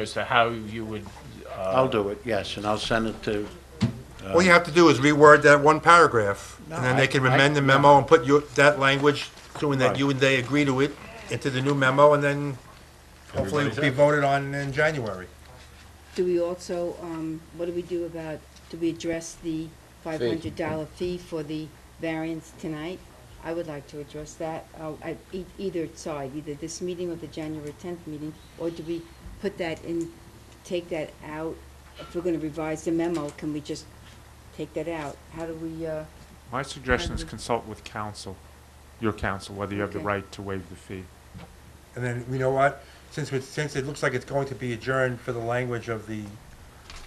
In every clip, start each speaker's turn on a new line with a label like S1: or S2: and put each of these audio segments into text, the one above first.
S1: as to how you would,
S2: I'll do it, yes, and I'll send it to,
S3: All you have to do is reword that one paragraph, and then
S2: No, I-
S3: they can
S2: I-
S3: amend the memo and put your, that language, doing that
S2: Right.
S3: you and they agree to it, into the new memo, and then hopefully it'll be voted on in January.
S4: Do we also, um, what do we do about, do we address the five hundred dollar fee for the variance tonight? I would like to address that, uh, at e- either side, either this meeting or the January tenth meeting, or do we put that in, take that out? If we're gonna revise the memo, can we just take that out? How do we, uh,
S5: My suggestion is
S4: Pardon?
S5: consult with counsel, your counsel, whether you have the
S4: Okay.
S5: right to waive the fee.
S3: And then, you know what, since it, since it looks like it's going to be adjourned for the language of the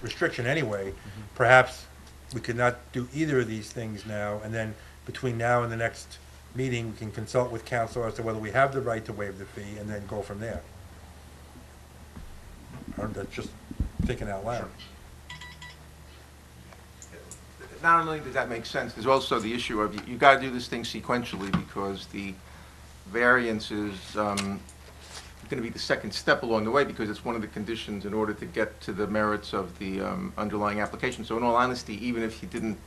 S3: restriction anyway, perhaps we could not do either of these things now, and then between now and the next meeting, we can consult with council as to whether we have the right to waive the fee, and then go from there. I'm just thinking out loud.
S6: Not only does that make sense, there's also the issue of, you- you gotta do this thing sequentially, because the variance is, um, gonna be the second step along the way, because it's one of the conditions in order to get to the merits of the, um, underlying application. So in all honesty, even if you didn't,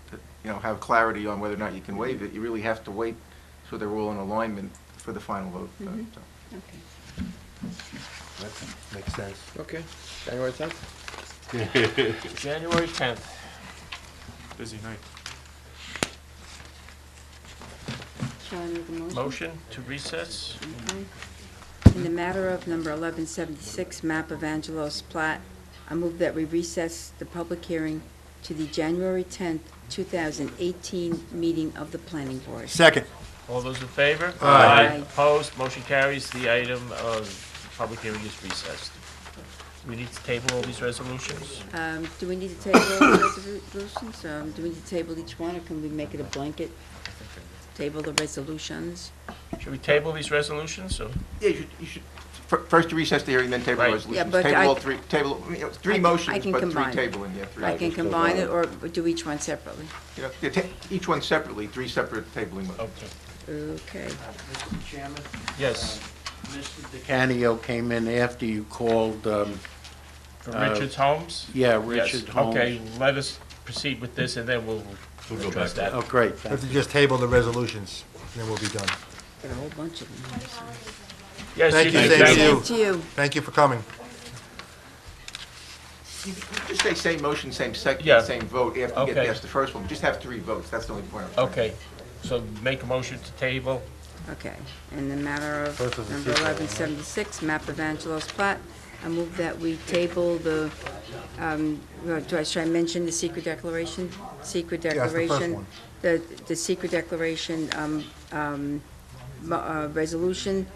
S6: you know, have clarity on whether or not you can waive it, you really have to wait so they're all in alignment for the final vote.
S4: Mm-hmm. okay.
S6: uh, so.
S3: That makes sense.
S7: Okay, January 10th?
S1: January 10th.
S5: Busy night.
S4: Shall I make a motion?
S1: Motion to recess?
S4: Okay. In the matter of number 1176, map of Angelo's Plat, I move that we recess the public hearing to the January 10th, 2018 meeting of the planning board.
S3: Second.
S1: All those in favor?
S4: Aye.
S1: Opposed, motion carries. The item of public hearing is recessed. We need to table all these resolutions?
S4: Um, Do we need to table all the resolutions? Um, Do we need to table each one, or can we make it a blanket? Table the resolutions?
S1: Should we table these resolutions, or?
S6: Yeah, you should, you should, fir- first you recess the hearing, then table
S1: Right.
S6: the
S1: Yeah,
S6: resolutions.
S4: but I-
S6: Table all three, table, you know,
S4: I
S6: three
S4: can- I
S6: motions,
S4: can
S6: but three
S4: combine it.
S6: tabling, yeah, three.
S4: I can
S6: motions.
S4: combine it, or do each one separately?
S6: You know, yeah, ta- Each one separately, three separate tabling motions.
S1: Okay.
S4: Okay.
S8: Mr. Chairman,
S1: Yes,
S8: Mr.
S2: Canio came in after you called, um,
S1: for
S2: Uh,
S1: Richard's Homes?
S2: yeah,
S1: Yes.
S2: Richard Holmes.
S1: Okay, let us proceed with this, and then we'll address that.
S2: Oh, great,
S3: We
S2: thank
S3: have to just table the resolutions, and then we'll be done.
S4: Got a whole bunch of them. here, so-
S1: Yes,
S3: Thank you,
S1: can-
S3: thank you.
S4: Thank you.
S3: Thank you for coming.
S6: You you Just say same motion, same
S1: Yeah.
S6: second, same vote after you get
S1: Okay.
S6: past the first one. You Just have three votes, that's the only point. I'm trying to
S1: Okay, so make a motion to table.
S4: Okay, in the matter of
S3: Both of the
S4: number
S3: people, right?
S4: 1176, map of Angelo's Plat, I move that we table the, um, well, do I, should I mention the secret declaration? Secret
S3: that's the first
S4: declaration.
S3: one.
S4: The, the secret declaration um, um, mo- uh, resolution,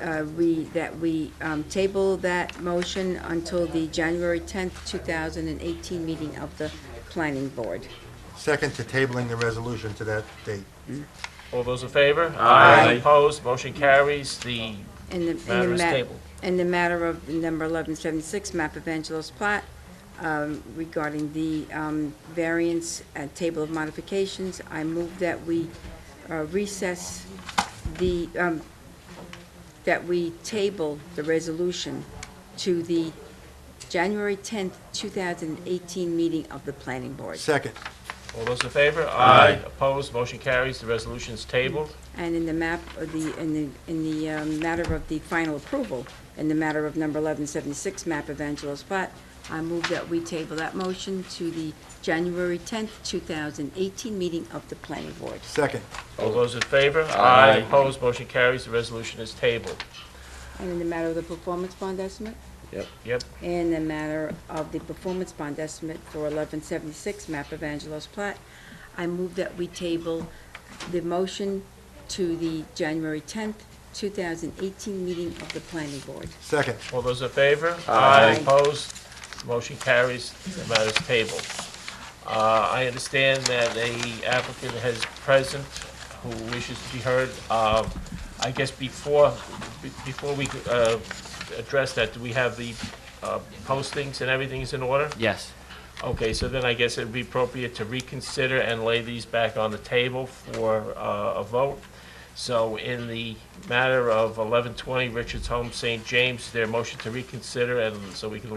S4: uh, we, that we um, table that motion until the January 10th, 2018 meeting of the planning board.
S3: Second to tabling the resolution to that date.
S1: All those in favor? Aye. Opposed, motion carries. The
S4: In the, in the
S1: matter is
S4: ma-
S1: tabled.
S4: in the matter of number 1176, map of Angelo's Plat, um, regarding the um, variance at table of modifications, I move that we uh, recess the, um, that we table the resolution to the January 10th, 2018 meeting of the planning board.
S3: Second.
S1: All those in favor? Aye. Opposed, motion carries, the resolution is tabled.
S4: And in the map, of the, in the, in the um, matter of the final approval, in the matter of number 1176, map of Angelo's Plat, I move that we table that motion to the January 10th, 2018 meeting of the planning board.
S3: Second.
S1: All those in favor?
S7: Aye.
S1: Opposed, motion carries, the resolution is tabled.
S4: And in the matter of the performance bond estimate?
S1: Yep,
S4: In the matter of the performance bond estimate for 1176 map of Angelo's Plat, I move that we table the motion to the January 10th, 2018 meeting of the planning board.
S3: Second.
S1: all those in favor?
S4: Aye.
S1: Opposed, motion carries, the matter is tabled. Uh, I understand that a applicant has present who wishes to be heard. Um, I guess before, be- before we uh, address that, do we have the uh, postings and everything is in order?
S8: Yes.
S1: Okay, so then I guess it'd be appropriate to reconsider and lay these back on the table for uh, a vote. So in the matter of 1120 Richards Home, St. James, their motion to reconsider, and so we can